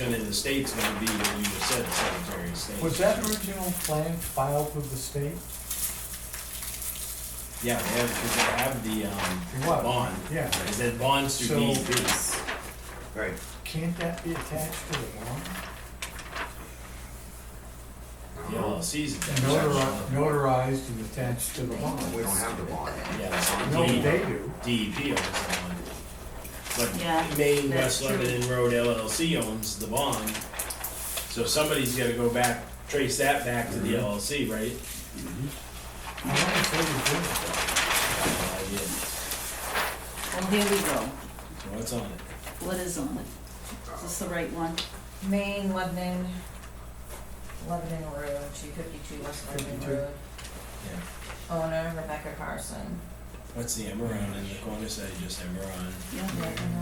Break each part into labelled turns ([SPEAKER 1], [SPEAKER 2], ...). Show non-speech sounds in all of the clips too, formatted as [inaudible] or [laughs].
[SPEAKER 1] And in the state's gonna be what you just said, the Secretary of State.
[SPEAKER 2] Was that original plan filed with the state?
[SPEAKER 1] Yeah, they have, because they have the, um,
[SPEAKER 2] What?
[SPEAKER 1] bond.
[SPEAKER 2] Yeah.
[SPEAKER 1] Is that bonds through E
[SPEAKER 2] So-
[SPEAKER 1] DEP.
[SPEAKER 3] Right.
[SPEAKER 2] Can't that be attached to the warrant?
[SPEAKER 1] The LLC's attached.
[SPEAKER 2] Notari- Notarized and attached to the
[SPEAKER 3] Oh, We
[SPEAKER 2] warrant?
[SPEAKER 3] don't have the bond.
[SPEAKER 1] Yeah, E it's on
[SPEAKER 2] No,
[SPEAKER 1] DEP.
[SPEAKER 2] they do.
[SPEAKER 1] DEP owns the bond.
[SPEAKER 4] Yeah,
[SPEAKER 1] But Maine
[SPEAKER 4] that's
[SPEAKER 1] West Lebanon Road LLC owns the bond. So somebody's gotta go back, trace that back to the
[SPEAKER 2] Mm-hmm.
[SPEAKER 1] LLC, right?
[SPEAKER 2] I wanna say they
[SPEAKER 1] Uh, yeah.
[SPEAKER 2] did it.
[SPEAKER 4] well, here we go.
[SPEAKER 1] So what's on it?
[SPEAKER 4] What is on it? Is this the right one?
[SPEAKER 5] Maine, Lebanon, Lebanon Road, two fifty-two West Lebanon
[SPEAKER 2] 52.
[SPEAKER 5] Road.
[SPEAKER 1] Yeah.
[SPEAKER 5] Owner Rebecca Carson.
[SPEAKER 1] What's the Emeron in the corner, say just Emeron?
[SPEAKER 4] Yeah,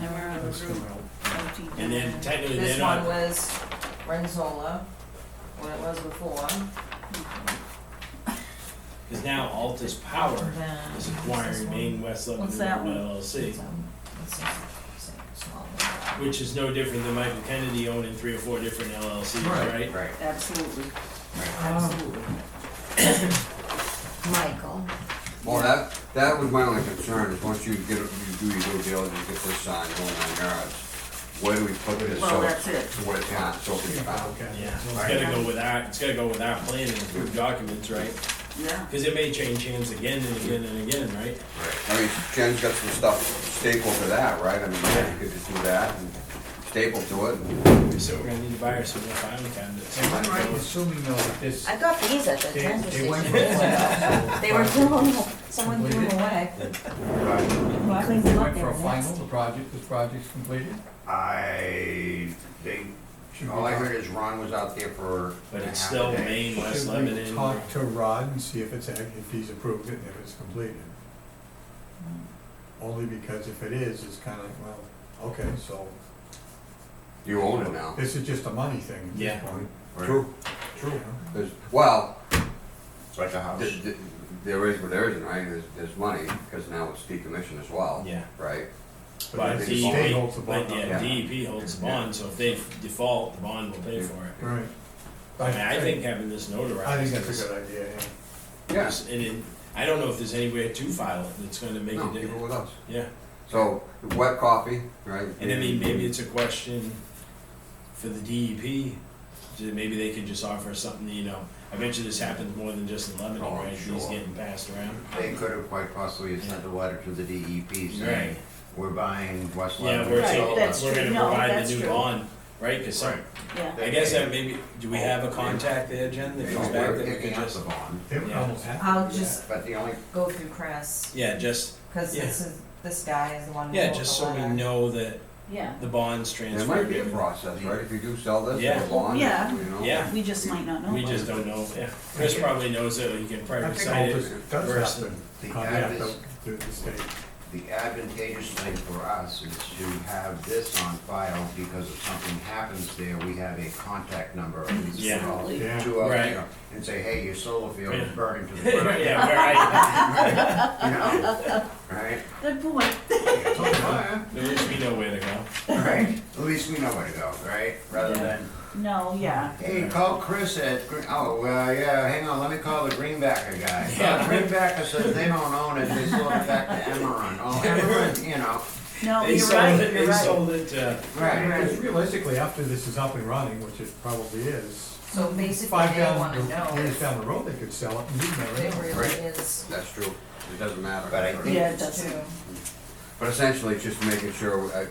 [SPEAKER 4] never on the group. OTW.
[SPEAKER 1] And then technically they're
[SPEAKER 5] This one
[SPEAKER 1] not,
[SPEAKER 5] was Renzola, what it was before.
[SPEAKER 1] because now Altus Power
[SPEAKER 5] Then
[SPEAKER 1] is
[SPEAKER 5] this
[SPEAKER 1] acquiring
[SPEAKER 5] one.
[SPEAKER 1] Maine West
[SPEAKER 4] What's that
[SPEAKER 1] Lebanon
[SPEAKER 4] one?
[SPEAKER 1] Road LLC,
[SPEAKER 5] It's, um, it's a- it's a small one.
[SPEAKER 1] which is no different than Michael Kennedy owning three or four different LLCs, right?
[SPEAKER 3] Right.
[SPEAKER 4] Absolutely,
[SPEAKER 2] Um,
[SPEAKER 4] absolutely.
[SPEAKER 5] Michael.
[SPEAKER 3] Well, that, that was my only concern, is once you get, you do your due diligence, get this signed, go nine yards, where do we put this?
[SPEAKER 4] Well,
[SPEAKER 3] so
[SPEAKER 4] that's it.
[SPEAKER 3] So it's not, so it can be found.
[SPEAKER 1] Yeah,
[SPEAKER 2] Okay.
[SPEAKER 1] it's gotta go with our, it's gotta go with our plan and approved documents, right?
[SPEAKER 4] Yeah,
[SPEAKER 1] Because it may change hands again and again and again, right?
[SPEAKER 3] I mean, Jen's got some stuff stapled to that, right? I mean, yeah, you could just do that and staple to it.
[SPEAKER 1] So we're gonna need to buy our silver filing cabinets.
[SPEAKER 2] Am I right in assuming though that this,
[SPEAKER 5] I got these at the
[SPEAKER 2] they,
[SPEAKER 5] transfer
[SPEAKER 2] they went.
[SPEAKER 5] station. [laughs] They were thrown, someone threw them away. I cleaned
[SPEAKER 2] They
[SPEAKER 5] them
[SPEAKER 2] went
[SPEAKER 5] up, they
[SPEAKER 2] for
[SPEAKER 5] were
[SPEAKER 2] a final,
[SPEAKER 5] next.
[SPEAKER 2] the project, this project's completed?
[SPEAKER 3] I, they,
[SPEAKER 2] Should
[SPEAKER 3] all I
[SPEAKER 2] we-
[SPEAKER 3] heard is Ron was out there for.
[SPEAKER 1] But it's
[SPEAKER 3] half a
[SPEAKER 1] still
[SPEAKER 3] day.
[SPEAKER 1] Maine West
[SPEAKER 2] Should we
[SPEAKER 1] Lebanon.
[SPEAKER 2] talk to Rod and see if it's, act- if he's approved it and if it's completed? Only because if it is, it's kinda like, well, okay, so
[SPEAKER 3] You own it now.
[SPEAKER 2] this is just a money thing at
[SPEAKER 1] Yeah.
[SPEAKER 2] this point.
[SPEAKER 3] True.
[SPEAKER 2] True.
[SPEAKER 3] There's, well,
[SPEAKER 6] It's like a house.
[SPEAKER 3] th- th- there is, but there isn't, right? There's, there's money, because now it's decommissioned as well.
[SPEAKER 1] Yeah.
[SPEAKER 3] Right?
[SPEAKER 2] But
[SPEAKER 1] But
[SPEAKER 2] the
[SPEAKER 3] it's-
[SPEAKER 2] state
[SPEAKER 1] DEP,
[SPEAKER 2] holds the bond
[SPEAKER 1] but
[SPEAKER 2] on
[SPEAKER 1] yeah,
[SPEAKER 2] it.
[SPEAKER 1] DEP holds the bond, so if they default, the bond will pay for it.
[SPEAKER 2] Right.
[SPEAKER 1] I mean, I think having this notarized.
[SPEAKER 2] I think that's
[SPEAKER 1] is-
[SPEAKER 2] a good idea, yeah.
[SPEAKER 3] Yeah.
[SPEAKER 1] is- And it, I don't know if there's anywhere to file it that's gonna make
[SPEAKER 3] No,
[SPEAKER 1] a
[SPEAKER 3] people
[SPEAKER 1] difference.
[SPEAKER 3] with us.
[SPEAKER 1] Yeah,
[SPEAKER 3] So, wet coffee, right?
[SPEAKER 1] and I mean, maybe it's a question for the DEP, so maybe they could just offer something, you know, I bet you this happens more than just in Lebanon,
[SPEAKER 3] Oh,
[SPEAKER 1] right? These
[SPEAKER 3] sure.
[SPEAKER 1] getting passed around.
[SPEAKER 6] They could have quite possibly have sent a letter to the DEP saying,
[SPEAKER 1] Right.
[SPEAKER 6] we're buying West
[SPEAKER 1] Yeah,
[SPEAKER 6] Lebanon.
[SPEAKER 1] we're,
[SPEAKER 4] Right,
[SPEAKER 1] so,
[SPEAKER 4] that's
[SPEAKER 1] we're
[SPEAKER 4] true.
[SPEAKER 1] gonna
[SPEAKER 4] No,
[SPEAKER 1] provide
[SPEAKER 4] that's
[SPEAKER 1] the new
[SPEAKER 4] true.
[SPEAKER 1] bond, right? Cause some,
[SPEAKER 4] yeah.
[SPEAKER 1] I guess that maybe, do
[SPEAKER 3] Oh,
[SPEAKER 1] we have a contact there, Jen, that
[SPEAKER 3] They
[SPEAKER 1] comes
[SPEAKER 3] don't
[SPEAKER 1] back
[SPEAKER 3] work
[SPEAKER 1] that we
[SPEAKER 6] Picking
[SPEAKER 1] could
[SPEAKER 6] up
[SPEAKER 1] just?
[SPEAKER 6] the bond,
[SPEAKER 2] They would
[SPEAKER 1] Yeah.
[SPEAKER 2] almost have to
[SPEAKER 5] I'll
[SPEAKER 2] do that.
[SPEAKER 5] just
[SPEAKER 6] but the only,
[SPEAKER 5] go through Chris,
[SPEAKER 1] Yeah, just,
[SPEAKER 5] cause this is, this guy is the one who
[SPEAKER 1] yeah,
[SPEAKER 5] wrote the
[SPEAKER 1] just so we
[SPEAKER 5] letter.
[SPEAKER 1] know that
[SPEAKER 4] Yeah,
[SPEAKER 1] the bond's transferred.
[SPEAKER 3] There might be a process, right? If you do sell this,
[SPEAKER 1] Yeah.
[SPEAKER 3] it's a bond, you
[SPEAKER 4] Yeah.
[SPEAKER 3] know?
[SPEAKER 1] Yeah,
[SPEAKER 4] we just might not know.
[SPEAKER 1] we just don't know, yeah. Chris probably knows it, he can
[SPEAKER 2] I
[SPEAKER 1] probably
[SPEAKER 2] think
[SPEAKER 1] cite it.
[SPEAKER 2] [laughs]
[SPEAKER 1] [laughs]
[SPEAKER 2] Altus does
[SPEAKER 1] versus
[SPEAKER 2] have to
[SPEAKER 6] the
[SPEAKER 2] contact
[SPEAKER 6] Adventist-
[SPEAKER 2] the, the state.
[SPEAKER 6] the advantageous thing for us is to have this on file because if something happens there, we have a contact number. of these
[SPEAKER 1] Yeah.
[SPEAKER 6] people
[SPEAKER 4] Absolutely.
[SPEAKER 2] Yeah.
[SPEAKER 6] To, uh,
[SPEAKER 1] Right.
[SPEAKER 6] you know, and say, hey, your solar field
[SPEAKER 1] Yeah.
[SPEAKER 6] is burning
[SPEAKER 1] [laughs]
[SPEAKER 6] to the ground.
[SPEAKER 1] Yeah, where I,
[SPEAKER 6] You know,
[SPEAKER 4] [laughs]
[SPEAKER 6] right?
[SPEAKER 4] Good point.
[SPEAKER 6] Yeah,
[SPEAKER 1] at least we know where to go.
[SPEAKER 6] Right, at least we know where to go, right? Rather
[SPEAKER 4] Yeah.
[SPEAKER 6] than
[SPEAKER 4] No, yeah,
[SPEAKER 6] Hey, call Chris at, Gre- oh, well, yeah, hang on, let me call the Greenbacker
[SPEAKER 1] Yeah.
[SPEAKER 6] guy. Yeah, Greenbacker says they don't own it, they sold it back to Emerald. Oh, Emerald, you know,
[SPEAKER 4] no,
[SPEAKER 1] They
[SPEAKER 4] you're
[SPEAKER 1] sold
[SPEAKER 4] right,
[SPEAKER 1] it,
[SPEAKER 4] you're
[SPEAKER 1] they
[SPEAKER 4] right.
[SPEAKER 1] sold it, uh,
[SPEAKER 6] right.
[SPEAKER 2] Because realistically, after this is up and running, which it probably is,
[SPEAKER 5] So basically,
[SPEAKER 2] five
[SPEAKER 5] they
[SPEAKER 2] down,
[SPEAKER 5] wanna know
[SPEAKER 2] years
[SPEAKER 5] if
[SPEAKER 2] down the road, they could sell it and you'd
[SPEAKER 5] it
[SPEAKER 2] never know.
[SPEAKER 5] really is
[SPEAKER 3] That's true. It doesn't matter.
[SPEAKER 6] But I think-
[SPEAKER 4] Yeah, it
[SPEAKER 5] too.
[SPEAKER 4] doesn't,
[SPEAKER 3] But essentially, it's just making sure, uh,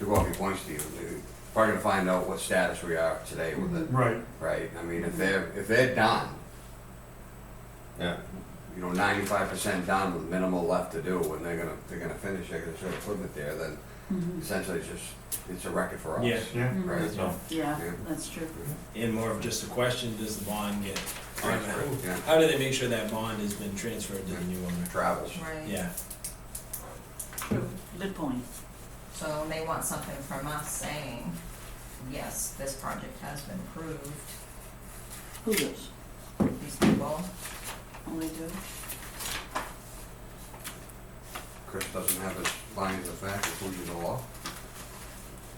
[SPEAKER 3] to what your point, Steve, we're probably gonna find out what status we are today with it,
[SPEAKER 2] Right,
[SPEAKER 3] right? I mean, if they're, if they're done,
[SPEAKER 6] Yeah.
[SPEAKER 3] you know, ninety-five percent done with minimal left to do, and they're gonna, they're gonna finish, they're gonna sort of put it there, then
[SPEAKER 4] Mm-hmm.
[SPEAKER 3] essentially it's just, it's a record for us.
[SPEAKER 1] Yeah.
[SPEAKER 2] yeah.
[SPEAKER 3] Right?
[SPEAKER 1] so,
[SPEAKER 4] yeah,
[SPEAKER 3] Yeah.
[SPEAKER 4] that's true.
[SPEAKER 1] and more of just a question, does the bond get?
[SPEAKER 3] Transferred, yeah.
[SPEAKER 1] How do they make sure that bond has been transferred to the new owner?
[SPEAKER 3] Travels.
[SPEAKER 5] Right.
[SPEAKER 1] Yeah,
[SPEAKER 4] Good point.
[SPEAKER 5] So they want something from us saying, yes, this project has been approved,
[SPEAKER 4] Who does?
[SPEAKER 5] these people.
[SPEAKER 4] Oh, they do?
[SPEAKER 3] Chris doesn't have his findings of fact, including the law.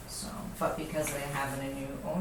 [SPEAKER 5] So but because they have a new owner